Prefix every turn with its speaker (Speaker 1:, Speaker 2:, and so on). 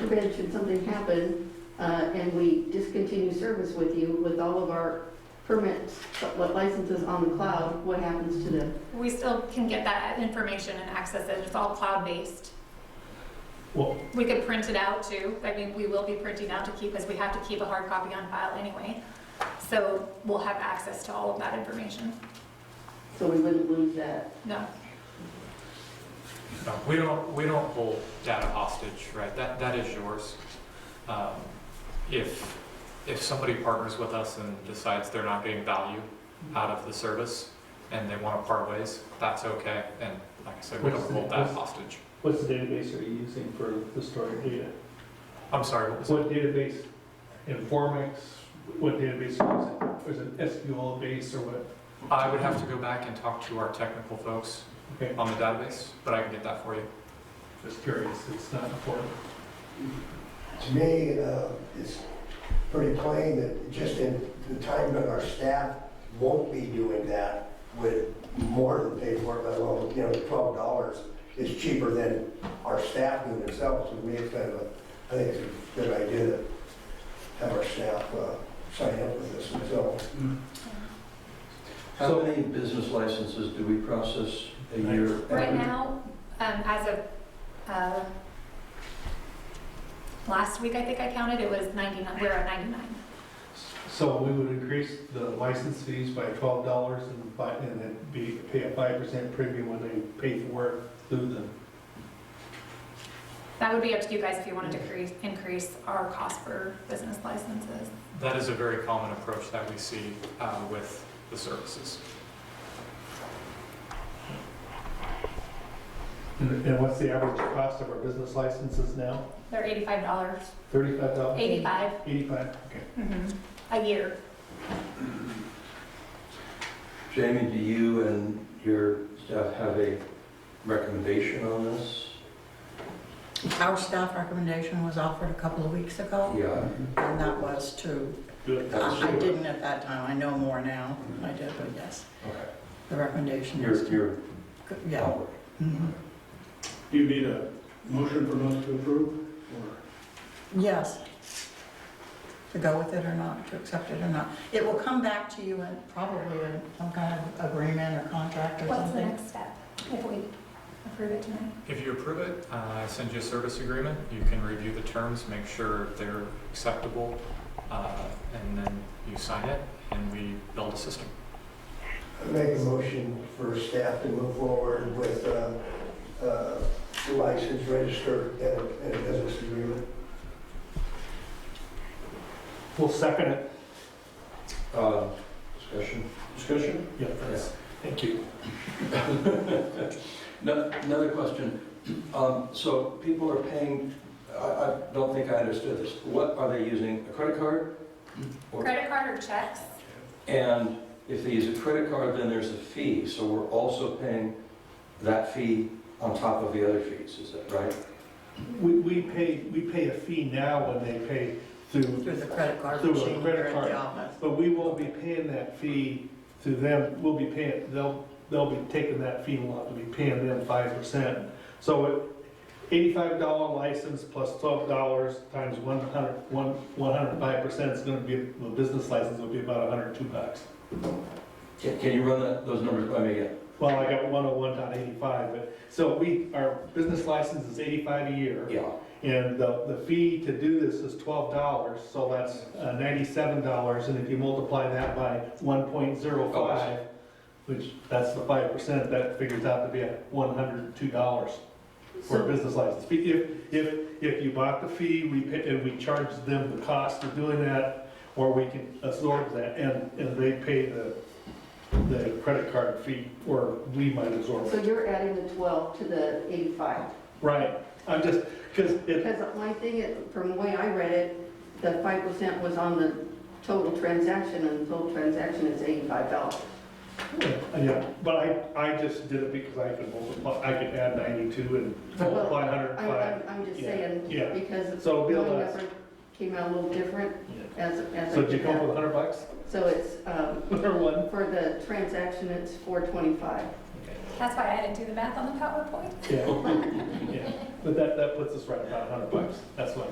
Speaker 1: forbid, should something happen, uh, and we discontinue service with you with all of our permits, what licenses on the cloud, what happens to them?
Speaker 2: We still can get that information and access it. It's all cloud-based.
Speaker 3: Well,
Speaker 2: We could print it out too. I mean, we will be printing out to keep, as we have to keep a hard copy on file anyway. So we'll have access to all of that information.
Speaker 1: So we wouldn't lose that.
Speaker 2: No,
Speaker 4: No, we don't, we don't hold data hostage, right? That, that is yours. Um, If, if somebody partners with us and decides they're not getting value out of the service and they want to part ways, that's okay. And like I said, we don't hold that hostage.
Speaker 3: what's the database are you using for the stored data?
Speaker 4: I'm sorry, what was it?
Speaker 3: What database, Informix, what database is it? Is it SQL base or what?
Speaker 4: I would have to go back and talk to our technical folks
Speaker 3: Okay,
Speaker 4: on the database, but I can get that for you.
Speaker 3: just curious, it's not important.
Speaker 5: To me, uh, it's pretty plain that just in the time that our staff won't be doing that with more than paid for, it, let alone, you know, twelve dollars is cheaper than our staff doing themselves. To me, it's kind of a, I think it's a good idea to have our staff uh, sign up with this themselves.
Speaker 6: How
Speaker 3: So-
Speaker 6: many business licenses do we process a year?
Speaker 2: right now, um, as of, uh, last week, I think I counted, it was 99, we're at 99.
Speaker 3: So we would increase the license fees by twelve dollars and buy, and then be, pay a five percent premium when they pay for it through them.
Speaker 2: That would be up to you guys if you wanted to increase, increase our cost for business licenses.
Speaker 4: That is a very common approach that we see uh, with the services.
Speaker 3: And and what's the average cost of our business licenses now?
Speaker 2: They're eighty-five dollars,
Speaker 3: Thirty-five dollars?
Speaker 2: eighty-five,
Speaker 3: Eighty-five, okay.
Speaker 2: mhm, a year.
Speaker 6: Jamie, do you and your staff have a recommendation on this?
Speaker 7: Our staff recommendation was offered a couple of weeks ago,
Speaker 6: Yeah.
Speaker 7: and that was to,
Speaker 3: Good.
Speaker 7: I I didn't at that time, I know more now than I did, but yes,
Speaker 6: Okay.
Speaker 7: the recommendation was
Speaker 6: Your,
Speaker 7: to,
Speaker 6: your
Speaker 7: yeah.
Speaker 6: homework.
Speaker 7: mhm.
Speaker 8: Do you need a motion from us to approve? or-
Speaker 7: Yes. To go with it or not, to accept it or not. It will come back to you in probably in some kind of agreement or contract or
Speaker 2: What's the
Speaker 7: something.
Speaker 2: next step if we approve it tonight?
Speaker 4: If you approve it, uh, I send you a service agreement. You can review the terms, make sure they're acceptable, uh, and then you sign it, and we build a system.
Speaker 5: I make a motion for staff to move forward with uh, uh, the license register and a- and a business agreement.
Speaker 3: We'll second it.
Speaker 6: Uh, Discussion? Discussion?
Speaker 3: Yeah,
Speaker 6: thanks.
Speaker 3: Thank you.
Speaker 6: No- Another question. Um, So people are paying, I, I don't think I understood this. What, are they using a credit card? Or-
Speaker 2: Credit card or checks?
Speaker 6: And if they use a credit card, then there's a fee, so we're also paying that fee on top of the other fees, is that right?
Speaker 3: We, we pay, we pay a fee now when they pay through,
Speaker 7: Through the credit card
Speaker 3: Through a
Speaker 7: machine
Speaker 3: credit
Speaker 7: here at
Speaker 3: card.
Speaker 7: the office.
Speaker 3: but we won't be paying that fee through them, we'll be paying, they'll, they'll be taking that fee, and we'll have to be paying them five percent. So it- eighty-five dollar license plus twelve dollars times one hundred, one, one hundred and five percent is gonna be, the business license will be about hundred and two bucks.
Speaker 6: Can can you run that- those numbers by me again?
Speaker 3: Well, I got one oh one dot eighty-five, but, so we, our business license is eighty-five a year.
Speaker 6: Yeah.
Speaker 3: And the, the fee to do this is twelve dollars, so that's uh, ninety-seven dollars, and if you multiply that by one point zero five, which, that's the five percent, that figures out to be at one hundred and two dollars for a
Speaker 1: So,
Speaker 3: business license fee. If, if, if you bought the fee, we, pay- and we charge them the cost of doing that, or we can absorb that, and, and they pay the, the credit card fee, or we might absorb
Speaker 1: so
Speaker 3: it.
Speaker 1: you're adding the 12 to the 85?
Speaker 3: Right, I'm just, because it,
Speaker 1: Because my thing, is, from the way I read it, the 5% was on the total transaction, and the total transaction is $85.
Speaker 3: Yeah, but I, I just did it because I could multiply, I could add ninety-two and multiply hundred and
Speaker 1: I-
Speaker 3: five.
Speaker 1: I'm, I'm just
Speaker 3: yeah,
Speaker 1: saying,
Speaker 3: yeah.
Speaker 1: because my
Speaker 3: So it'll be a lot.
Speaker 1: number came out a little different as, as.
Speaker 3: So
Speaker 1: I
Speaker 3: did you
Speaker 1: did
Speaker 3: come up
Speaker 1: that.
Speaker 3: with hundred bucks
Speaker 1: So it's, um,
Speaker 3: or one?
Speaker 1: for the transaction, it's 425.
Speaker 2: That's why I didn't do the math on the PowerPoint.
Speaker 3: Yeah. Yeah, but that, that puts us right about hundred bucks, that's what